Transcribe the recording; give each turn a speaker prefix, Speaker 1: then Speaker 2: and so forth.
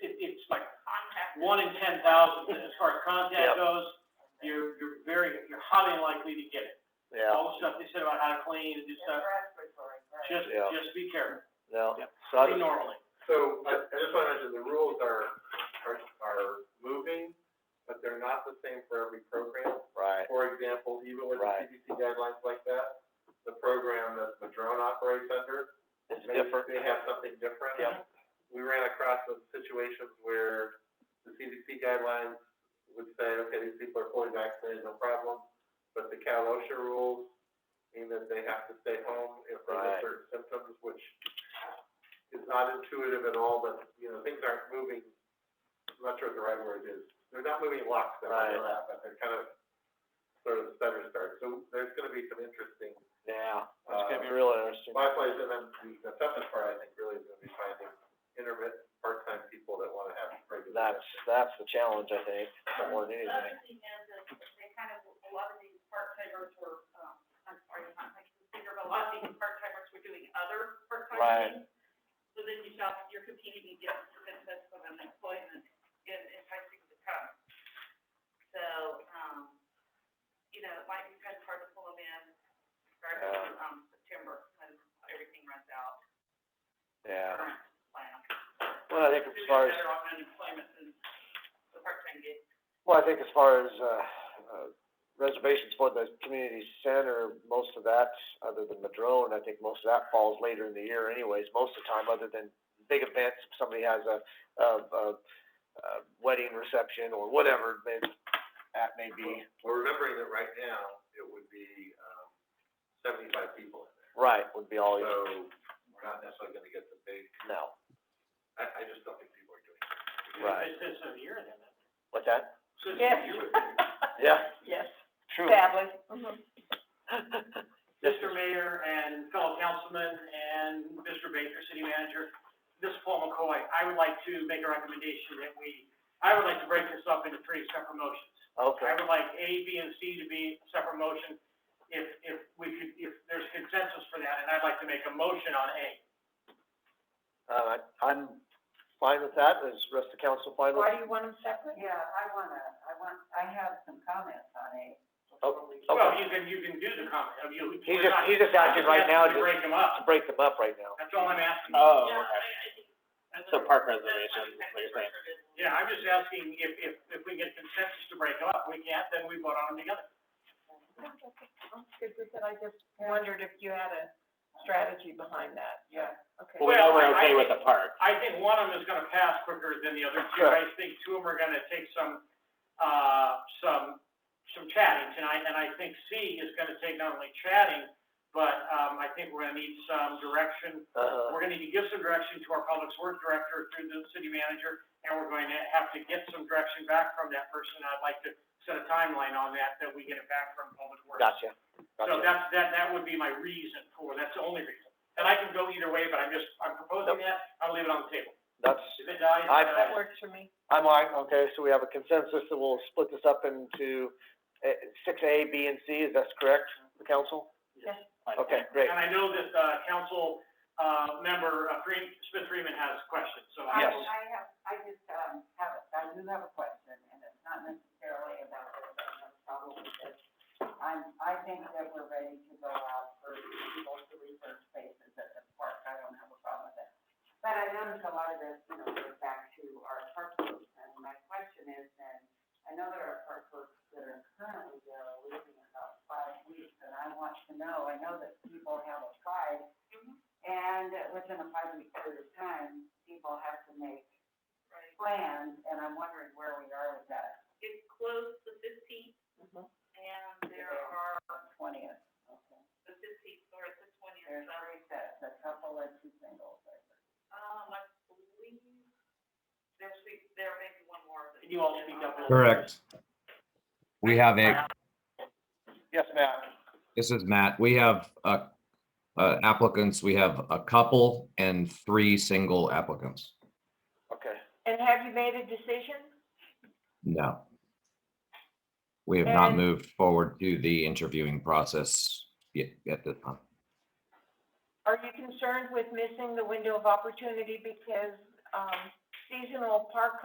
Speaker 1: like
Speaker 2: contact.
Speaker 1: one in ten thousand, as far as
Speaker 3: Yep.
Speaker 1: contact goes, you're, you're very, you're highly likely to get it.
Speaker 3: yeah,
Speaker 1: All the stuff they said about how to clean and do stuff, just,
Speaker 3: Yeah.
Speaker 1: just be careful,
Speaker 3: no,
Speaker 1: Yep.
Speaker 3: so I
Speaker 1: be
Speaker 3: just,
Speaker 1: normally.
Speaker 4: So, I, I just wanna mention, the rules are, are, are moving, but they're not the same for every program.
Speaker 3: right,
Speaker 4: For example, even with the
Speaker 3: Right.
Speaker 4: CDC guidelines like that, the program that Madrone operates under,
Speaker 3: it's
Speaker 4: maybe
Speaker 3: different,
Speaker 4: they have something different.
Speaker 3: Yep.
Speaker 4: We ran across some situations where the CDC guidelines would say, okay, these people are fully vaccinated, no problem, but the Cal OSHA rules mean that they have to stay home if they
Speaker 3: Right.
Speaker 4: have certain symptoms, which is not intuitive at all, but, you know, things aren't moving, I'm not sure what the right word is. They're not moving in lockstep,
Speaker 3: Right.
Speaker 4: they're not, but they're kind of sort of stutter start. So there's gonna be some interesting,
Speaker 3: yeah, it's
Speaker 4: uh,
Speaker 3: gonna be real interesting,
Speaker 4: my place, and then the- the toughest part, I think, really is gonna be finding intermittent, part-time people that wanna have regular.
Speaker 3: that's, that's the challenge, I think, more than
Speaker 2: The
Speaker 3: anything,
Speaker 2: other thing is, is they kind of, a lot of these part-timers were, um, I'm sorry, not like consider, but a lot of these part-timers were doing other
Speaker 3: Right.
Speaker 2: part-time things. So then you stop, you're competing against benefits of unemployment and enticing to come. So, um, you know, it might be kind of hard to pull them in, start,
Speaker 3: Yeah.
Speaker 2: um, September, when everything runs out,
Speaker 3: yeah.
Speaker 2: current plan.
Speaker 3: Well, I think as
Speaker 2: Doing
Speaker 3: far as,
Speaker 2: better on unemployment than the part-time gig.
Speaker 3: well, I think as far as, uh, uh, reservations for the community center, most of that, other than Madrone, I think most of that falls later in the year anyways, most of the time, other than big events, if somebody has a, a, a, a wedding reception or whatever, then that may be,
Speaker 4: Well, remembering that right now, it would be, um, seventy-five people in there.
Speaker 3: right, would be all, you-
Speaker 4: So we're not necessarily gonna get the big,
Speaker 3: no,
Speaker 4: I, I just don't think people are doing it.
Speaker 3: Right.
Speaker 1: It's, it's a year then.
Speaker 3: what's that?
Speaker 1: So it's a
Speaker 5: Yes.
Speaker 1: year.
Speaker 3: Yeah,
Speaker 5: Yes,
Speaker 3: true.
Speaker 5: sadly. Mm-hmm.
Speaker 1: Mr. Mayor and fellow councilmen and Mr. Baker, city manager, this is Paul McCoy. I would like to make a recommendation that we, I would like to break this up into three separate motions. I
Speaker 3: Okay,
Speaker 1: would like A, B, and C to be a separate motion, if, if we could, if there's consensus for that, and I'd like to make a motion on A.
Speaker 3: uh, I'm fine with that, is rest of the council fine with?
Speaker 5: Why do you want them separate?
Speaker 6: Yeah, I wanna, I want, I have some comments on it.
Speaker 3: Oh,
Speaker 1: Well,
Speaker 3: okay.
Speaker 1: you can, you can do the comment, of you.
Speaker 3: He's just, he's just asking right now
Speaker 1: To
Speaker 3: to,
Speaker 1: break them
Speaker 3: to
Speaker 1: up,
Speaker 3: break them up right now.
Speaker 1: that's all I'm asking.
Speaker 7: Oh,
Speaker 2: Yeah,
Speaker 7: okay.
Speaker 2: I, I think.
Speaker 7: So park
Speaker 2: That's my
Speaker 7: reservations,
Speaker 2: second
Speaker 7: like you're saying.
Speaker 2: record is-
Speaker 1: Yeah, I'm just asking if, if, if we get consensus to break them up, we can't, then we vote on them together.
Speaker 5: Good, because I just wondered if you had a strategy behind that.
Speaker 6: Yeah.
Speaker 5: Okay.
Speaker 7: Well, we know
Speaker 1: Well,
Speaker 7: we're
Speaker 1: I-
Speaker 7: okay with the park.
Speaker 1: I think one of them is gonna pass quicker than the other two,
Speaker 3: Sure.
Speaker 1: I think two of them are gonna take some, uh, some, some chatting tonight, and I think C is gonna take not only chatting, but, um, I think we're gonna need some direction,
Speaker 3: Uh-huh.
Speaker 1: we're gonna need to give some direction to our public works director through the city manager, and we're going to have to get some direction back from that person, I'd like to set a timeline on that, that we get it back from public works.
Speaker 3: Gotcha,
Speaker 1: So
Speaker 3: gotcha.
Speaker 1: that's, that, that would be my reason for, that's the only reason, and I can go either way, but I'm just, I'm proposing that, I'll leave it on the table.
Speaker 3: That's,
Speaker 1: If it dies,
Speaker 3: I-
Speaker 1: uh,
Speaker 5: That works for me.
Speaker 3: I'm all right, okay, so we have a consensus that we'll split this up into, uh, six A, B, and C, is that correct, the council? Okay, great,
Speaker 1: And I know that, uh, council, uh, member, uh, Freeman, Smith Freeman has questions, so I
Speaker 3: Yes.
Speaker 1: will.
Speaker 6: I have, I just, um, have, a- I do have a question, and it's not necessarily about this, but it's probably this. I'm, I think that we're ready to go out for people to reserve spaces at the park, I don't have a problem with it. But I noticed a lot of this, you know, goes back to our park groups, and my question is then, I know there are park groups that are currently there are leaving in about five weeks, and I want to know, I know that people have applied, and within a five-week period of time, people have to make
Speaker 2: Right.
Speaker 6: plans, and I'm wondering where we are with that,
Speaker 2: It's closed the fifteenth,
Speaker 6: Mm-hmm.
Speaker 2: and there are,
Speaker 6: twentieth, okay?
Speaker 2: the fifteenth or the
Speaker 6: There's
Speaker 2: twentieth,
Speaker 6: three sets, a couple and two singles, I think.
Speaker 2: um, I believe, there's, there may be one more.
Speaker 1: Can you all speak up a little?
Speaker 8: Correct. We have a,
Speaker 3: yes, Matt,
Speaker 8: this is Matt, we have, uh, uh, applicants, we have a couple and three single applicants.
Speaker 3: okay,
Speaker 5: And have you made a decision?
Speaker 8: No. We have not
Speaker 5: And-
Speaker 8: moved forward to the interviewing process yet, at this time.
Speaker 5: Are you concerned with missing the window of opportunity because, um, seasonal park